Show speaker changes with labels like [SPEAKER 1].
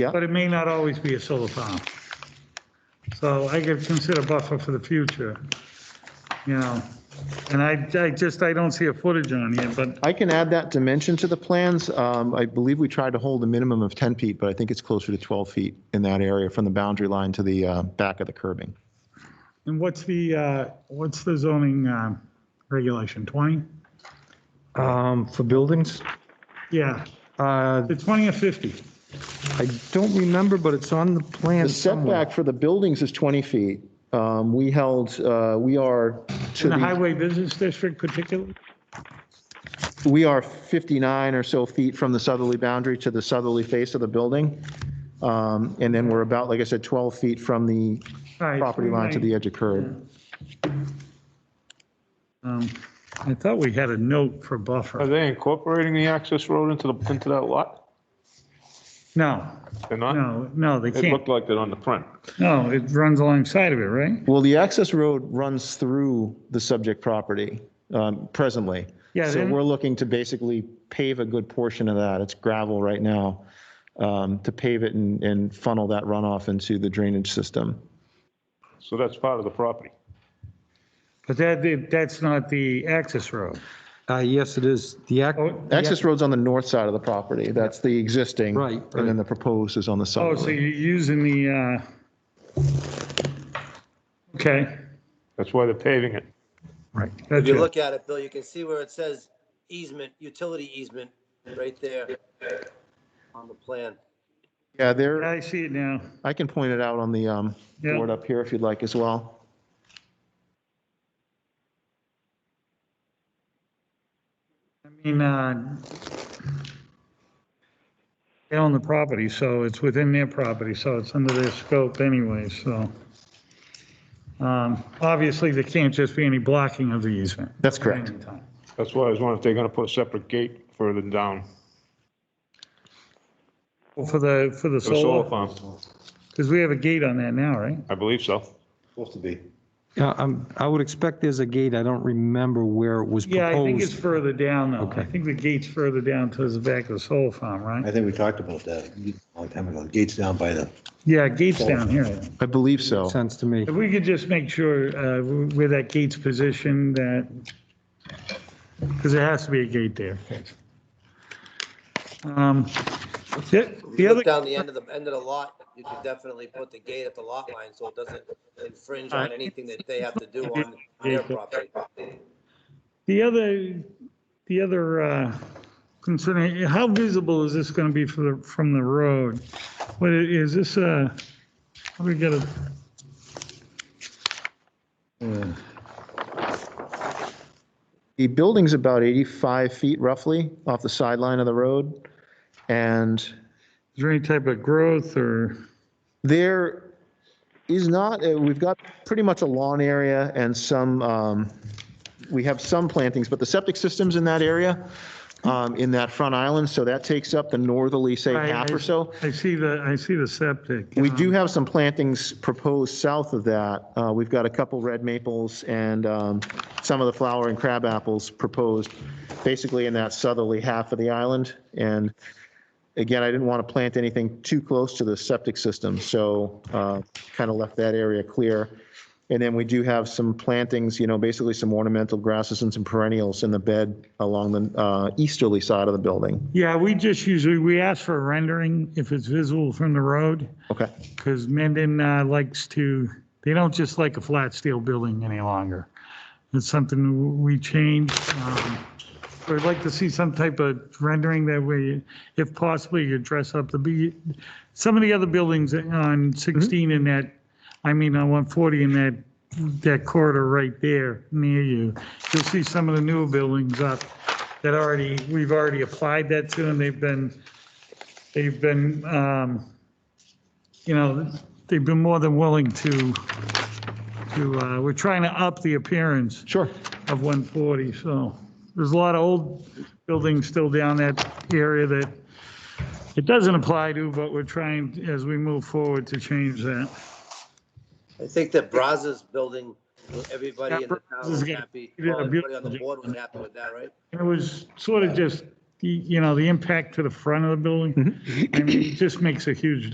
[SPEAKER 1] Yeah.
[SPEAKER 2] But it may not always be a solar farm. So I could consider buffer for the future, you know? And I, I just, I don't see a footage on here, but
[SPEAKER 1] I can add that dimension to the plans. Um, I believe we tried to hold a minimum of 10 feet, but I think it's closer to 12 feet in that area from the boundary line to the uh, back of the curbing.
[SPEAKER 2] And what's the, uh, what's the zoning um, regulation, 20?
[SPEAKER 3] Um, for buildings,
[SPEAKER 2] Yeah,
[SPEAKER 3] uh,
[SPEAKER 2] the 20 or 50?
[SPEAKER 3] I don't remember, but it's on the plan
[SPEAKER 1] The
[SPEAKER 3] somewhere.
[SPEAKER 1] setback for the buildings is 20 feet. Um, We held, uh, we are to
[SPEAKER 2] In the
[SPEAKER 1] the,
[SPEAKER 2] highway business district particularly?
[SPEAKER 1] we are 59 or so feet from the southerly boundary to the southerly face of the building. Um, And then we're about, like I said, 12 feet from the
[SPEAKER 2] All right,
[SPEAKER 1] property
[SPEAKER 2] we
[SPEAKER 1] line to
[SPEAKER 2] may-
[SPEAKER 1] the edge of curb.
[SPEAKER 2] um, I thought we had a note for
[SPEAKER 4] Are
[SPEAKER 2] buffer.
[SPEAKER 4] they incorporating the access road into the, into that lot?
[SPEAKER 2] No,
[SPEAKER 4] They're not?
[SPEAKER 2] no, no, they
[SPEAKER 4] It
[SPEAKER 2] can't.
[SPEAKER 4] looked like it on the print.
[SPEAKER 2] No, it runs alongside of it, right?
[SPEAKER 1] Well, the access road runs through the subject property um, presently.
[SPEAKER 2] Yeah,
[SPEAKER 1] So
[SPEAKER 2] then-
[SPEAKER 1] we're looking to basically pave a good portion of that. It's gravel right now, um, to pave it and, and funnel that runoff into the drainage system.
[SPEAKER 4] So that's part of the property.
[SPEAKER 2] But that, that's not the access road.
[SPEAKER 3] Uh, yes, it is. The act,
[SPEAKER 2] Oh,
[SPEAKER 1] Access road's on the north side of the property. That's the existing.
[SPEAKER 3] Right,
[SPEAKER 1] And
[SPEAKER 3] right.
[SPEAKER 1] then the proposed is on the
[SPEAKER 2] oh, so you're
[SPEAKER 1] southerly.
[SPEAKER 2] using the, uh, okay.
[SPEAKER 4] That's why they're paving it.
[SPEAKER 2] Right.
[SPEAKER 5] If you look at it, Bill, you can see where it says easement, utility easement, right there on the plan.
[SPEAKER 1] Yeah, there,
[SPEAKER 2] I see it now.
[SPEAKER 1] I can point it out on the um,
[SPEAKER 2] Yeah.
[SPEAKER 1] board up here if you'd like as well.
[SPEAKER 2] I mean, uh, they own the property, so it's within their property, so it's under their scope anyway, so. Um, Obviously, there can't just be any blocking of the easement.
[SPEAKER 1] That's correct.
[SPEAKER 4] That's why I was wondering if they're gonna put a separate gate further down.
[SPEAKER 2] Well, For the, for the
[SPEAKER 4] The
[SPEAKER 2] solar,
[SPEAKER 4] solar farm,
[SPEAKER 2] because we have a gate on that now, right?
[SPEAKER 4] I believe so.
[SPEAKER 3] yeah, I'm, I would expect there's a gate. I don't remember where it was
[SPEAKER 2] Yeah, I think it's
[SPEAKER 3] proposed.
[SPEAKER 2] further down though. I
[SPEAKER 3] Okay.
[SPEAKER 2] think the gate's further down towards the back of the solar farm,
[SPEAKER 6] I
[SPEAKER 2] right?
[SPEAKER 6] think we talked about that a long time ago. The Gates down by the,
[SPEAKER 2] Yeah, gate's down here.
[SPEAKER 1] I believe so.
[SPEAKER 3] Sense to me.
[SPEAKER 2] If we could just make sure uh, where that gate's positioned, that, because there has to be a gate there. Um, The the
[SPEAKER 5] Look
[SPEAKER 2] other,
[SPEAKER 5] down the end of the, end of the lot, you could definitely put the gate at the lot line so it doesn't infringe on anything that they have to do on their property.
[SPEAKER 2] the other, the other uh, concern, how visible is this going to be from the, from the road? What, i- is this a, how do we get a?
[SPEAKER 1] The building's about 85 feet roughly off the sideline of the road. And
[SPEAKER 2] is there any type of growth or?
[SPEAKER 1] there is not, uh, we've got pretty much a lawn area and some, um, we have some plantings, but the septic system's in that area, um, in that front island. So that takes up the northerly, say,
[SPEAKER 2] I-
[SPEAKER 1] half
[SPEAKER 2] I-
[SPEAKER 1] or so.
[SPEAKER 2] I see the, I see the septic.
[SPEAKER 1] We
[SPEAKER 2] um,
[SPEAKER 1] do have some plantings proposed south of that. Uh, We've got a couple red maples and um, some of the flower and crab apples proposed, basically in that southerly half of the island. And again, I didn't want to plant anything too close to the septic system, so uh, kind of left that area clear. And then we do have some plantings, you know, basically some ornamental grasses and some perennials in the bed along the uh, easterly side of the building.
[SPEAKER 2] Yeah, we just usually, we ask for a rendering if it's visible from the road,
[SPEAKER 1] Okay.
[SPEAKER 2] because Mendon uh, likes to, they don't just like a flat steel building any longer. It's something we changed. um, so We'd like to see some type of rendering that way, if possibly you dress up the, be- some of the other buildings on 16 in that, I mean, on 140 in that, that corridor right there near you, you'll see some of the newer buildings up that already, we've already applied that to, and they've been, they've been, um, you know, they've been more than willing to, to, uh, we're trying to up the appearance
[SPEAKER 1] Sure.
[SPEAKER 2] of 140, so there's a lot of old buildings still down that area that it doesn't apply to, but we're trying, as we move forward, to change that.
[SPEAKER 5] I think that Brazos building, everybody in the town was happy. Well, Everybody on the board was happy with that, right?
[SPEAKER 2] It was sort of just, the- you know, the impact to the front of the building, I mean, it just makes a huge